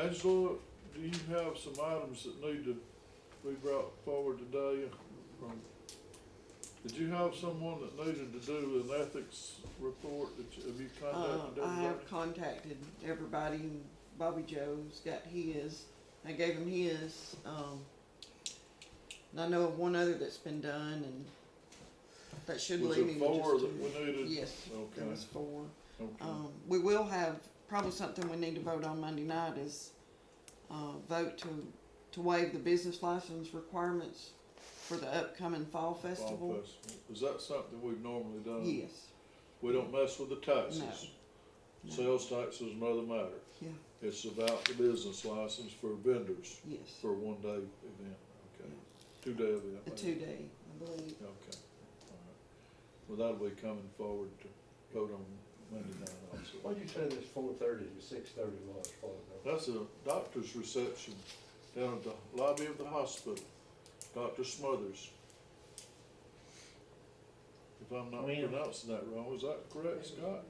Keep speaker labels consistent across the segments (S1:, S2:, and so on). S1: Angela, do you have some items that need to be brought forward today from, did you have someone that needed to do an ethics report that you, have you
S2: Uh,
S1: contacted
S2: I
S1: everybody?
S2: have contacted everybody. Bobby Joe's got his. I gave him his. Um, and I know of one other that's been done, and that should
S1: Was
S2: leave
S1: it
S2: me with
S1: four
S2: just
S1: that
S2: two.
S1: we needed?
S2: Yes,
S1: Okay,
S2: there was four.
S1: okay.
S2: Um, we will have probably something we need to vote on Monday night is uh, vote to to waive the business license requirements for the upcoming fall
S1: Fall
S2: festival.
S1: festival. Is that something we've normally done?
S2: Yes.
S1: We don't mess with the taxes.
S2: No.
S1: Sales tax is another matter.
S2: Yeah.
S1: It's about the business license for vendors
S2: Yes.
S1: for a one-day event, okay? Two-day event.
S2: A
S1: maybe.
S2: two day, I believe.
S1: Okay, all right. Well, that'll be coming forward to vote on Monday night
S3: Why
S1: also.
S3: you say this four thirty to six thirty was for though?
S1: That's a doctor's reception down at the lobby of the hospital, Dr. Smothers. If I'm not
S4: When?
S1: pronouncing that wrong, is that correct, Scott?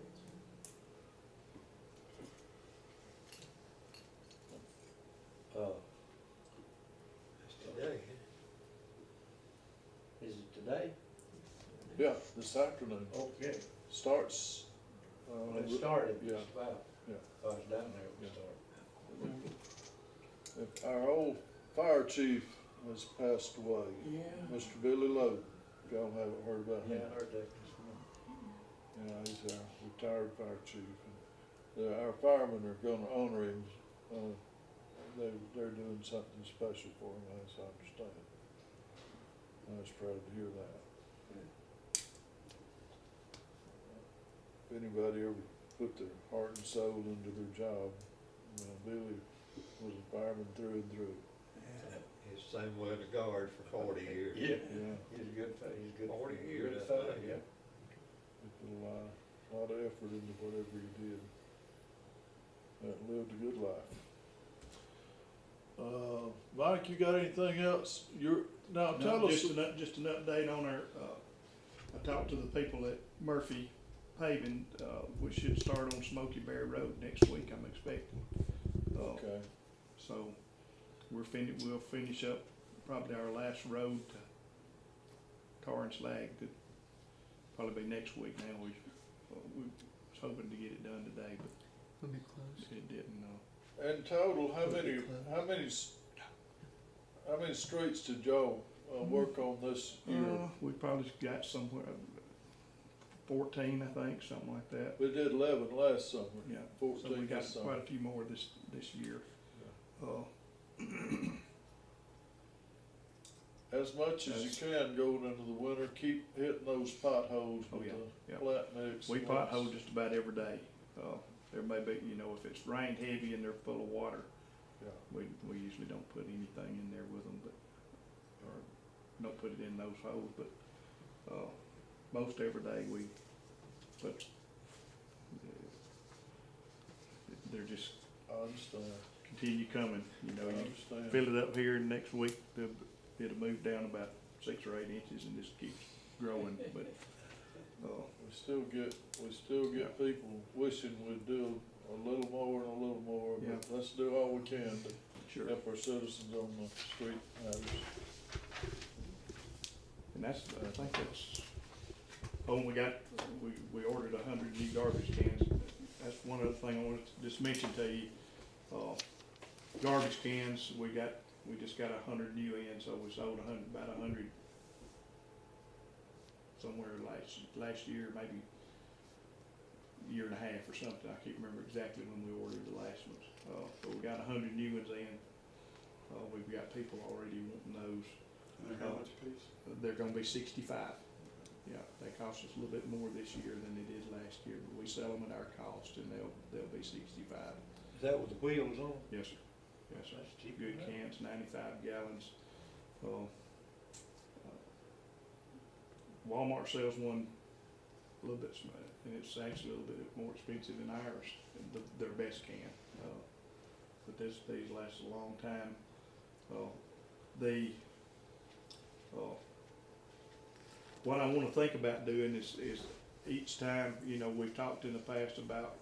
S3: Uh,
S4: Today. Is it today?
S1: Yeah, this afternoon.
S3: Okay,
S1: Starts,
S3: when it
S1: uh,
S3: started,
S1: Yeah.
S3: just about,
S1: Yeah.
S3: I was down there, when
S1: Yeah.
S3: it started.
S1: if our old fire chief has passed away,
S4: Yeah.
S1: Mr. Billy Lowe. Y'all haven't heard about him?
S3: Yeah, I heard that this morning.
S1: Yeah, he's our retired fire chief. and the- Our firemen are gonna honor him. uh, They, they're doing something special for him, as I understand. I was proud to hear that. If anybody ever put their heart and soul into their job, you know, Billy was a fireman through and through.
S5: It's the same way in the guard for forty years.
S3: Yeah,
S1: Yeah,
S3: he's a good, fe- he's a good.
S5: Forty
S3: good
S5: years, I
S3: fellow,
S5: think.
S3: yeah.
S1: he put a lot, a lot of effort into whatever he did. And lived a good life. Uh, Mike, you got anything else? You're, now
S6: No,
S1: tell us,
S6: Just an, up- just an update on our, uh, I talked to the people at Murphy Paving, uh, we should start on Smoky Bear Road next week, I'm expecting. Uh,
S1: okay,
S6: So, we're fin, we'll finish up probably our last road to tar and slag, could probably be next week now, we, uh, we was hoping to get it done today, but
S2: We'll be close.
S6: it didn't, uh,
S1: in total, how many, how many, s- how many streets did y'all, uh, work on this year?
S6: Mm-hmm. Uh, we probably got somewhere, uh, fourteen, I think, something like that.
S1: We did eleven last summer,
S6: Yeah, so we
S1: fourteen
S6: got
S1: this
S6: quite
S1: summer.
S6: a few more this, this year. Uh,
S1: As much as you can going into the winter, keep hitting those potholes
S6: Oh,
S1: with
S6: yeah,
S1: the
S6: yeah.
S1: flat mix.
S6: we
S1: and what's-
S6: pothole just about every day. Uh, there may be, you know, if it's rained heavy and they're full of water,
S1: Yeah.
S6: we, we usually don't put anything in there with them, but, or don't put it in those holes, but, uh, most every day we put, they're just
S1: I understand,
S6: continue coming, you
S1: I
S6: know, you
S1: understand.
S6: fill it up here and next week, they'll- it'll move down about six or eight inches and just keeps growing, but, uh,
S1: We still get, we still get people wishing we'd do a little more and a little more,
S6: Yeah.
S1: but let's do all we can to
S6: sure.
S1: help our citizens on the street matters.
S6: And that's, I think that's, oh, and we got, we, we ordered a hundred new garbage cans. That's one other thing I wanted to just mention to you. Uh, garbage cans, we got, we just got a hundred new in, so we sold a hun, about a hundred somewhere last, last year, maybe year and a half or something. I can't remember exactly when we ordered the last ones. Uh, but we got a hundred new ones in. Uh, we've got people already wanting those. how much They're gonna be sixty-five. Yeah, they cost us a little bit more this year than they did last year, but we sell them at our cost and they'll, they'll be sixty-five.
S3: Is that with the wheels on?
S6: Yes, sir. Yes, sir.
S3: That's cheap.
S6: Good cans, ninety-five gallons. Uh, Walmart sells one a little bit, sm- and it's actually a little bit more expensive than ours, the, their best can. Uh, But this, these last a long time. Uh, The, uh, what I wanna think about doing is, is each time, you know, we've talked in the past about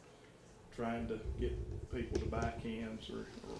S6: trying to get people to buy cans or, or